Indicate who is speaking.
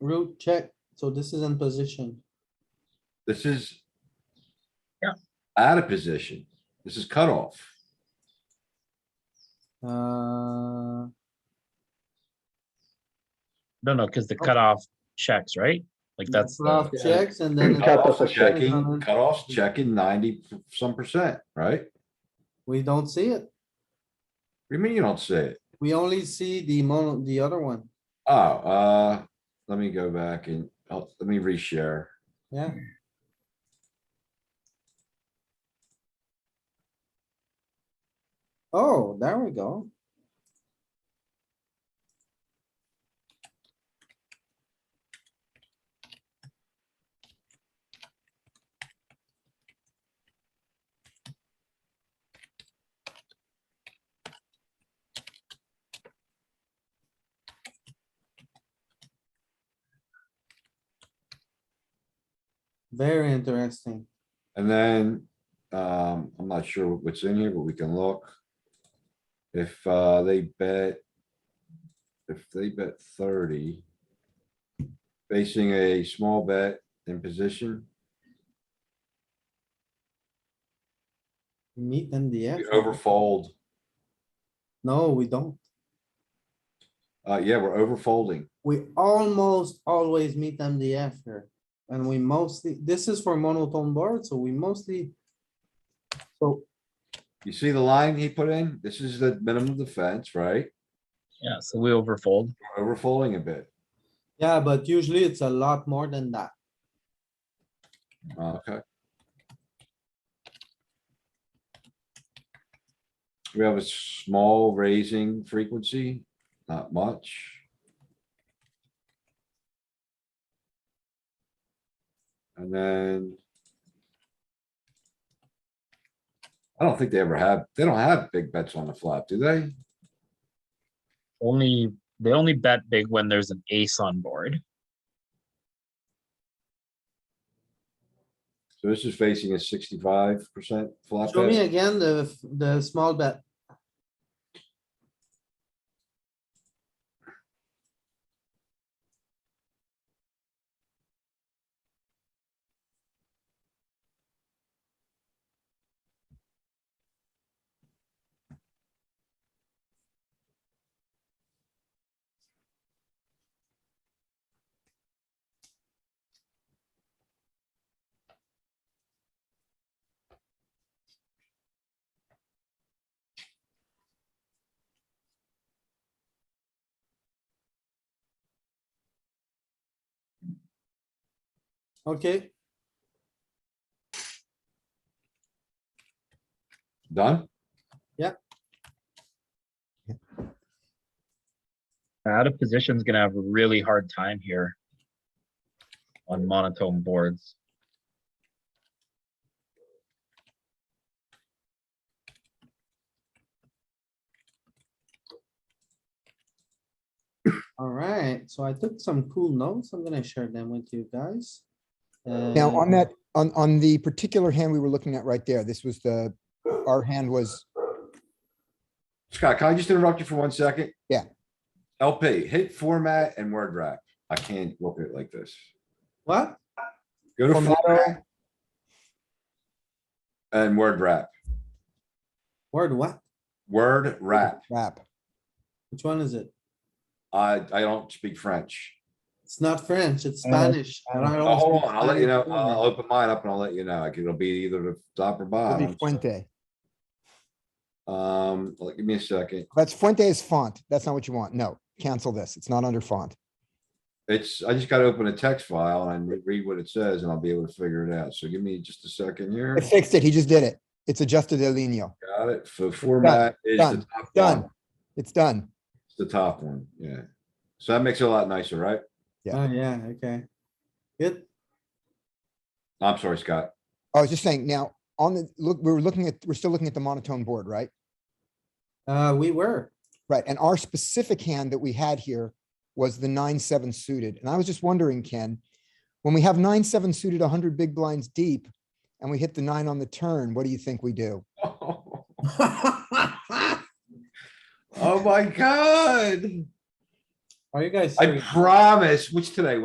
Speaker 1: root check, so this is in position.
Speaker 2: This is.
Speaker 3: Yeah.
Speaker 2: Out of position. This is cutoff.
Speaker 1: Uh,
Speaker 3: No, no, because the cutoff checks, right? Like that's. the-
Speaker 1: Bluff checks and then.
Speaker 4: Cut off
Speaker 2: Cutoff's
Speaker 4: a check.
Speaker 1: Uh-huh.
Speaker 2: Checking, cutoff's checking ninety some percent, right? What
Speaker 1: We don't see it.
Speaker 2: do you mean you don't see it?
Speaker 1: We only see the mono, the other one.
Speaker 2: Oh, uh, let me go back and, oh, let me reshare.
Speaker 1: Yeah, oh, there we go. Very interesting.
Speaker 2: And then, um, I'm not sure what's in here, but we can look. If, uh, they bet. If they bet thirty. Facing a small bet in position,
Speaker 1: Meet in the end.
Speaker 2: we overfold.
Speaker 1: No, we don't.
Speaker 2: Uh, yeah, we're overfolding.
Speaker 1: We almost always meet MDF here. And we mostly, this is for monotone board, so we mostly. So
Speaker 2: You see the line he put in? This is the minimum defense, right?
Speaker 3: Yeah, so we overfold.
Speaker 2: We're Overfolding a bit.
Speaker 1: Yeah, but usually it's a lot more than that.
Speaker 2: Uh, Okay. We have a small raising frequency, not much. And then. I don't think they ever have, they don't have big bets on the flop, do they?
Speaker 3: Only, they only bet big when there's an ace on board.
Speaker 2: So this is facing a sixty-five percent flop
Speaker 1: Show me
Speaker 2: bet.
Speaker 1: again the, f- the small bet. Okay,
Speaker 2: Done?
Speaker 3: Out of position's gonna have a really hard time here. On monotone boards.
Speaker 1: alright, so I took some cool notes. I'm gonna share them with you guys.
Speaker 4: Now, on
Speaker 1: Uh,
Speaker 4: that, on, on the particular hand we were looking at right there, this was the, our hand was,
Speaker 2: Scott, can I just interrupt you for one second?
Speaker 4: Yeah.
Speaker 2: LP, hit format and word wrap. I can't look at it like this.
Speaker 1: What?
Speaker 2: Go to
Speaker 4: Formatto.
Speaker 2: format. And word wrap,
Speaker 1: Word what?
Speaker 2: word wrap.
Speaker 4: crap.
Speaker 1: Which one is it?
Speaker 2: I, I don't speak French.
Speaker 1: It's not French, it's
Speaker 4: Uh,
Speaker 3: I don't-
Speaker 1: Spanish.
Speaker 3: I don't-
Speaker 1: I don't
Speaker 2: Oh, Hold
Speaker 1: speak
Speaker 2: on, I'll let you know.
Speaker 1: Spanish either.
Speaker 2: I'll open mine up and I'll let you know. Like, It'll be either the top or
Speaker 4: It'll be
Speaker 2: bottom.
Speaker 4: Fuente.
Speaker 2: Um, like, give me a second.
Speaker 4: That's Fuente is font. That's not what you want. No, cancel this. It's not under font.
Speaker 2: It's, I just gotta open a text file and re- read what it says and I'll be able to figure it out. So give me just a second here.
Speaker 4: I fixed it. He just did it. It's adjusted El Nino.
Speaker 2: Got it. So format is the
Speaker 4: done,
Speaker 2: top one.
Speaker 4: Done. It's done.
Speaker 2: It's the top one, yeah. So that makes it a lot nicer, right?
Speaker 4: Yeah.
Speaker 1: Oh, yeah, okay. Good.
Speaker 2: I'm sorry, Scott.
Speaker 4: I was just saying now on the, look, we were looking at, we're still looking at the monotone board, right?
Speaker 1: Uh, we were.
Speaker 4: Right. And our specific hand that we had here was the nine, seven suited. And I was just wondering, Ken, when we have nine, seven suited, hundred big blinds deep and we hit the nine on the turn, what do you think we do?
Speaker 2: Oh my god.
Speaker 1: Are you guys?
Speaker 2: I
Speaker 1: serious?
Speaker 2: promise, what's today?